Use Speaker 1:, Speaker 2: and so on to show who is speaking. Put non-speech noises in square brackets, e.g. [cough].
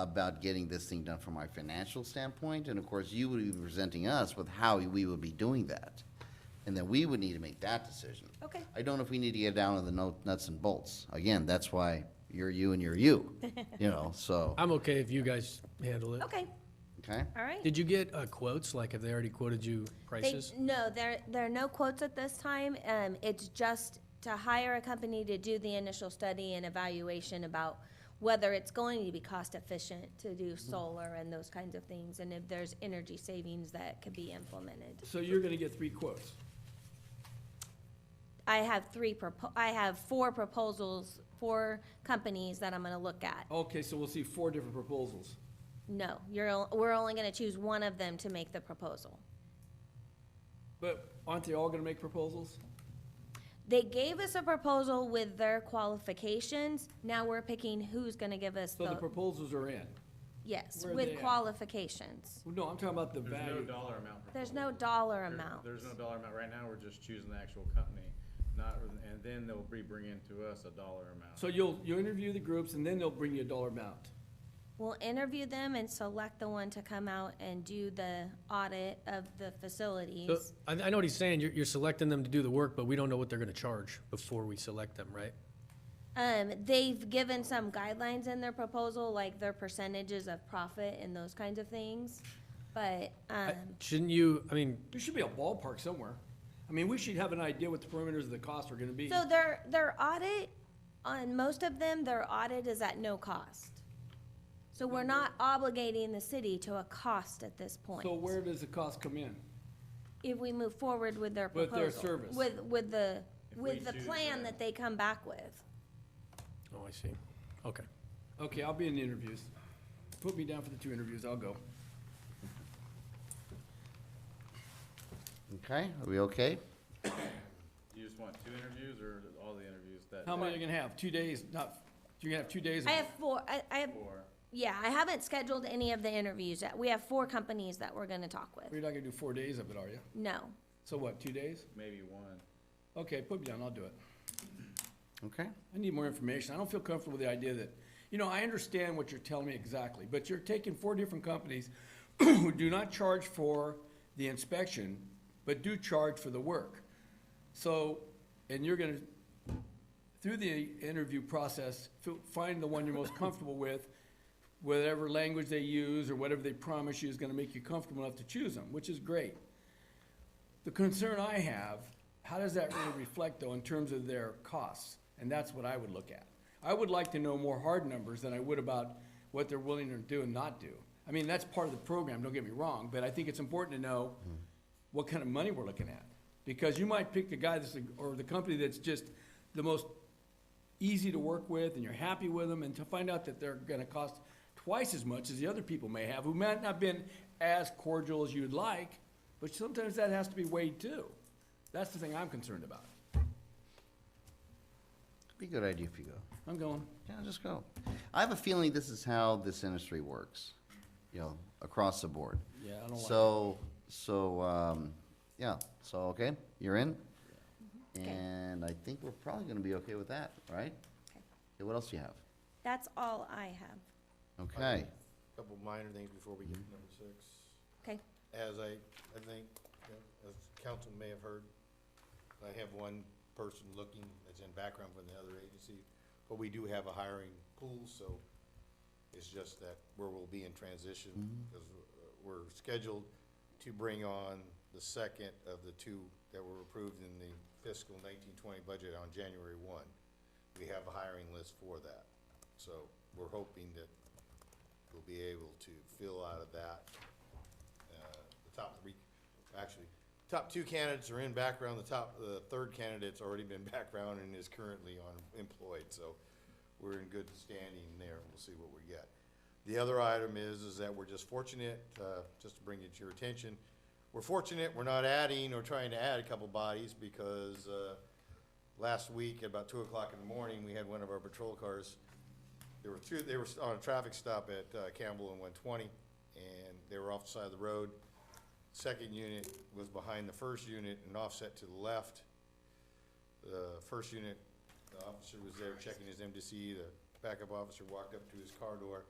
Speaker 1: about getting this thing done from our financial standpoint, and of course, you would be presenting us with how we would be doing that. And then we would need to make that decision.
Speaker 2: Okay.
Speaker 1: I don't know if we need to get down to the no- nuts and bolts. Again, that's why you're you and you're you, you know, so,
Speaker 3: I'm okay if you guys handle it.
Speaker 2: Okay,
Speaker 1: okay?
Speaker 2: all right.
Speaker 3: Did you get uh, quotes, like have they already quoted you
Speaker 2: They-
Speaker 3: prices?
Speaker 2: No, there, there are no quotes at this time. Um, it's just to hire a company to do the initial study and evaluation about whether it's going to be cost efficient to do
Speaker 3: Mm-hmm.
Speaker 2: solar and those kinds of things, and if there's energy savings that could be implemented.
Speaker 4: So you're gonna get three quotes.
Speaker 2: I have three propo, I have four proposals, four companies that I'm gonna look at.
Speaker 4: Okay, so we'll see four different proposals.
Speaker 2: No, you're, o- we're only gonna choose one of them to make the proposal.
Speaker 4: But aren't they all gonna make proposals?
Speaker 2: They gave us a proposal with their qualifications, now we're picking who's gonna give us
Speaker 4: So the
Speaker 2: the,
Speaker 4: proposals are in.
Speaker 2: yes,
Speaker 4: where are
Speaker 2: with
Speaker 4: they at?
Speaker 2: qualifications.
Speaker 4: No, I'm talking about the
Speaker 5: There's no
Speaker 4: value.
Speaker 5: dollar amount. for
Speaker 2: There's
Speaker 5: both.
Speaker 2: no dollar
Speaker 5: There-
Speaker 2: amount.
Speaker 5: There's no dollar amount. Right now, we're just choosing the actual company, not, and then they'll be bringing to us a dollar amount.
Speaker 4: So you'll, you'll interview the groups and then they'll bring you a dollar amount.
Speaker 2: We'll interview them and select the one to come out and do the audit of the
Speaker 3: So,
Speaker 2: facilities.
Speaker 3: I, I know what he's saying, you're, you're selecting them to do the work, but we don't know what they're gonna charge before we select them, right?
Speaker 2: Um, they've given some guidelines in their proposal, like their percentages of profit and those kinds of things. But, um,
Speaker 3: Shouldn't you, I mean,
Speaker 4: There should be a ballpark somewhere. I mean, we should have an idea what the perimeters of the costs are gonna be.
Speaker 2: so their, their audit, on most of them, their audit is at no cost. So we're not obligating the city to a cost at this point.
Speaker 4: So where does the cost come in?
Speaker 2: If we move forward with their
Speaker 4: With
Speaker 2: proposal.
Speaker 4: their service.
Speaker 2: With, with the,
Speaker 5: If we
Speaker 2: with the
Speaker 5: choose
Speaker 2: plan
Speaker 5: them.
Speaker 2: that they come back with.
Speaker 3: oh, I see, okay.
Speaker 4: Okay, I'll be in the interviews. Put me down for the two interviews, I'll go.
Speaker 1: Okay, are we okay?
Speaker 5: You just want two interviews or all the interviews that?
Speaker 4: How many are you gonna have? Two days, not, you're gonna have two days? of-
Speaker 2: I have four, I, I have,
Speaker 5: Or,
Speaker 2: yeah, I haven't scheduled any of the interviews yet. We have four companies that we're gonna talk with.
Speaker 4: You're not gonna do four days of it, are you?
Speaker 2: No.
Speaker 4: So what, two days?
Speaker 5: maybe one.
Speaker 4: Okay, put me down, I'll do it.
Speaker 1: Okay,
Speaker 4: I need more information. I don't feel comfortable with the idea that, you know, I understand what you're telling me exactly, but you're taking four different companies [clears throat] who do not charge for the inspection, but do charge for the work. So, and you're gonna, through the interview process, fi- find the one you're most comfortable with, whatever language they use or whatever they promise you is gonna make you comfortable enough to choose them, which is great. The concern I have, how does that really reflect though in terms of their costs? And that's what I would look at. I would like to know more hard numbers than I would about what they're willing to do and not do. I mean, that's part of the program, don't get me wrong, but I think it's important to know what kind of money we're looking at. Because you might pick the guy that's, or the company that's just the most easy to work with and you're happy with them and to find out that they're gonna cost twice as much as the other people may have, who might not been as cordial as you'd like, but sometimes that has to be weighed too. That's the thing I'm concerned about.
Speaker 1: be a good idea if you go.
Speaker 4: I'm going,
Speaker 1: Yeah, just go. I have a feeling this is how this industry works, you know, across the board.
Speaker 4: Yeah, I don't like
Speaker 1: So, so, um, yeah, so, okay, you're in? And I think we're probably gonna be okay with that, right?
Speaker 2: Okay.
Speaker 1: Okay, what else do you have?
Speaker 2: That's all I have.
Speaker 1: Okay,
Speaker 6: couple minor things before we get to number six.
Speaker 2: Okay,
Speaker 6: As I, I think, uh, as council may have heard, I have one person looking that's in background from the other agency, but we do have a hiring pool, so it's just that where we'll be in transition, because we're scheduled to bring on the second of the two that were approved in the fiscal nineteen twenty budget on January one. We have a hiring list for that, so we're hoping that we'll be able to fill out of that uh, the top three, actually, top two candidates are in background, the top, the third candidate's already been [laughs] background and is currently unemployed, so we're in good standing there, we'll see what we get. The other item is, is that we're just fortunate, uh, just to bring it to your attention, we're fortunate, we're not adding or trying to add a couple bodies, because, uh, last week, at about two o'clock in the morning, we had one of our patrol cars there were two, they were on a traffic stop at uh, Campbell and one twenty, and they were off the side of the road. Second unit was behind the first unit and offset to the left. The first unit, the officer was there checking his MDC, the backup officer walked up to his car door,